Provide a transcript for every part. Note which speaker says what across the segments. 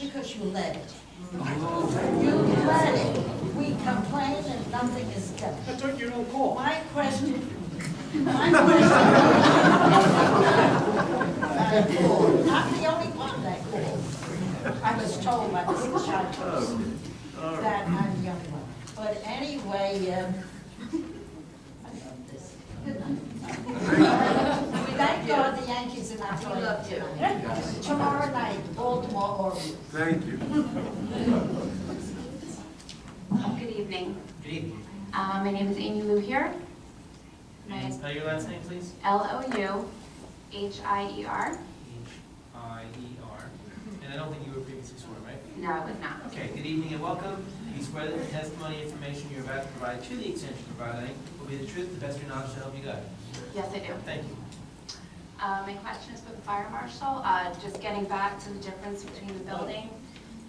Speaker 1: Because you let it. You let it. We complain and nothing is done.
Speaker 2: I took your own call.
Speaker 1: My question, my question. I called. I'm the only one that called. I was told by the child that I'm the only one. But anyway, um, I love this. Good night. We thank God the Yankees are not playing. tonight. Tomorrow night, Baltimore Orioles.
Speaker 3: Thank you.
Speaker 4: Oh, Good evening.
Speaker 5: Good evening.
Speaker 4: Uh, My name is Amy Lou here. My
Speaker 5: May I spell your last name, please?
Speaker 4: L-O-U-H-I-E-R.
Speaker 5: H-I-E-R. E And I don't think you were previously sworn, right?
Speaker 4: No, it was not.
Speaker 5: Okay, good evening and welcome. Do you swear that the testimony information you're about to provide to the extension providing will be the truth, the best of your knowledge, to help you God?
Speaker 4: Yes, I do.
Speaker 5: Thank you.
Speaker 4: Uh, My question is with the fire marshal. Uh, Just getting back to the difference between the building,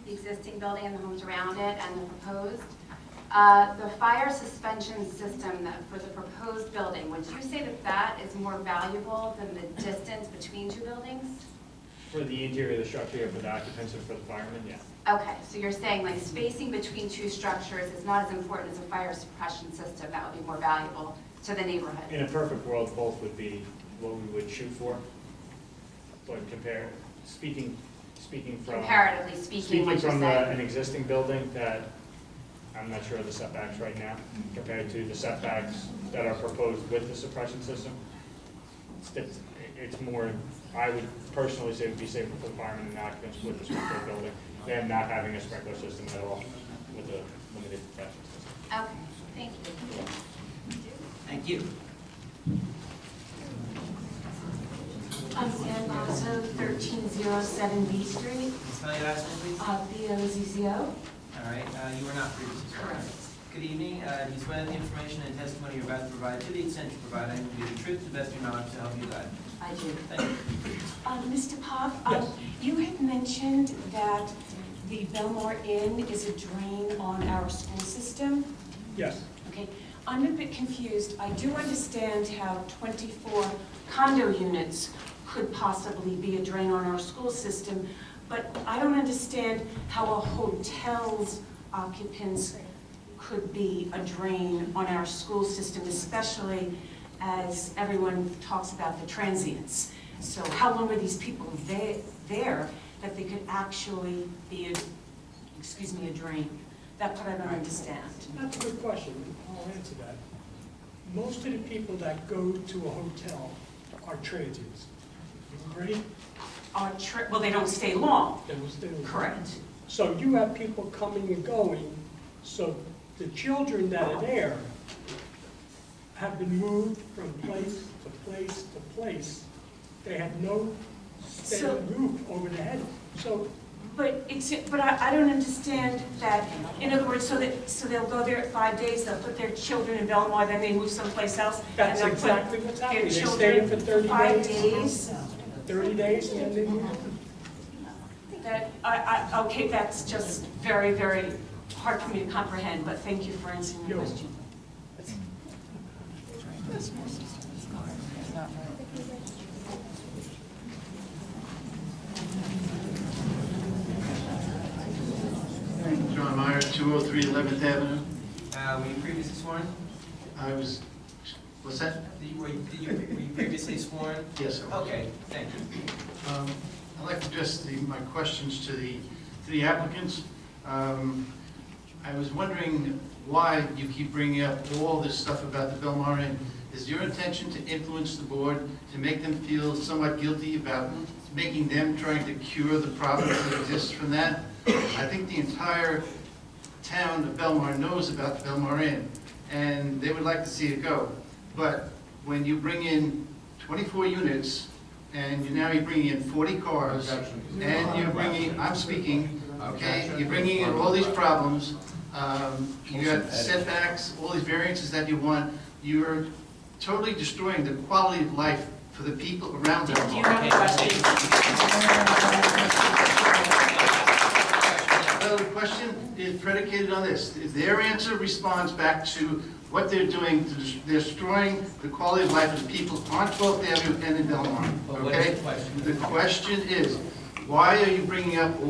Speaker 4: the existing building and the homes around it and the proposed. Uh, The fire suspension system that- for the proposed building, would you say that that is more valuable than the distance between two buildings?
Speaker 6: For the interior of the structure, yeah, for the occupants and for the firemen, yeah.
Speaker 4: Okay, so you're saying like spacing between two structures is not as important as a fire suppression system, that would be more valuable to the
Speaker 6: In
Speaker 4: neighborhood?
Speaker 6: a perfect world, both would be what we would shoot for. But compare, speaking, speaking from.
Speaker 4: Comparatively speaking, what you're
Speaker 6: Speaking from the- an
Speaker 4: saying?
Speaker 6: existing building that, I'm not sure of the setbacks right now, compared to the setbacks that are proposed with the suppression system. It's, it's more, I would personally say it would be safer for the firemen and the occupants with the sprinkler building than not having a sprinkler system at all with a limited suppression system.
Speaker 4: Okay, thank you.
Speaker 5: Thank you.
Speaker 7: I'm Ann Bozzo, 1307 B Street,
Speaker 5: Can you spell your last name, please?
Speaker 7: uh, B-O-Z-Z-O.
Speaker 5: All right, uh, you were not previously sworn.
Speaker 7: Correct.
Speaker 5: Good evening. Uh, Do you swear that the information and testimony you're about to provide to the extension providing will be the truth, the best of your knowledge, to help you God?
Speaker 7: I do.
Speaker 5: Thank you.
Speaker 7: Uh, Mr. Pop, um,
Speaker 6: Yes.
Speaker 7: you had mentioned that the Belmar Inn is a drain on our school system.
Speaker 6: Yes.
Speaker 7: Okay, I'm a bit confused. I do understand how 24 condo units could possibly be a drain on our school system, but I don't understand how a hotel's occupants could be a drain on our school system, especially as everyone talks about the transients. So how long were these people the- there that they could actually be, a- excuse me, a drain? That part I don't understand.
Speaker 2: That's a good question, I'll answer that. Most of the people that go to a hotel are transients. You agree?
Speaker 7: are, tri- well, they don't stay long.
Speaker 2: They will stay.
Speaker 7: Correct.
Speaker 2: So you have people coming and going, so the children that are there have been moved from place to place to place. They have no
Speaker 7: So-
Speaker 2: stable roof over their head. So
Speaker 7: But it's, but I, I don't understand that, in other words, so that, so they'll go there at five days, they'll put their children in Belmar, then they move someplace else. and
Speaker 2: that's
Speaker 7: they'll put
Speaker 2: exactly what's
Speaker 7: their
Speaker 2: happening. They stay
Speaker 7: children
Speaker 2: there for 30
Speaker 7: Five
Speaker 2: days,
Speaker 7: days,
Speaker 2: 30 days, and then they move.
Speaker 7: that, I, I, okay, that's just very, very hard for me to comprehend, but thank you for answering my
Speaker 2: You're
Speaker 7: question.
Speaker 8: John Meyer, 203 11th Avenue.
Speaker 5: Uh, Were you previously sworn?
Speaker 8: I was, what's that?
Speaker 5: Did you- Were you did you- were you previously sworn?
Speaker 8: Yes, I was.
Speaker 5: Okay, thank you.
Speaker 8: Um, I'd like to address the, my questions to the, to the applicants. Um, I was wondering why you keep bringing up all this stuff about the Belmar Inn. Is your intention to influence the board, to make them feel somewhat guilty about making them trying to cure the problem that exists from that? I think the entire town of Belmar knows about the Belmar Inn, and they would like to see it go. But when you bring in 24 units, and you're now you're bringing in 40 cars, and you're bringing, I'm speaking, okay, you're bringing in all these problems, um, you got setbacks, all these variances that you want, you're totally destroying the quality of life for the people around
Speaker 7: Do you
Speaker 8: Belmar.
Speaker 7: have a question?
Speaker 8: The question is predicated on this. Their answer responds back to what they're doing, to des- destroying the quality of life of people on 12th Avenue and in Belmar,
Speaker 5: But what is
Speaker 8: okay?
Speaker 5: the question?
Speaker 8: The question is, why are you bringing up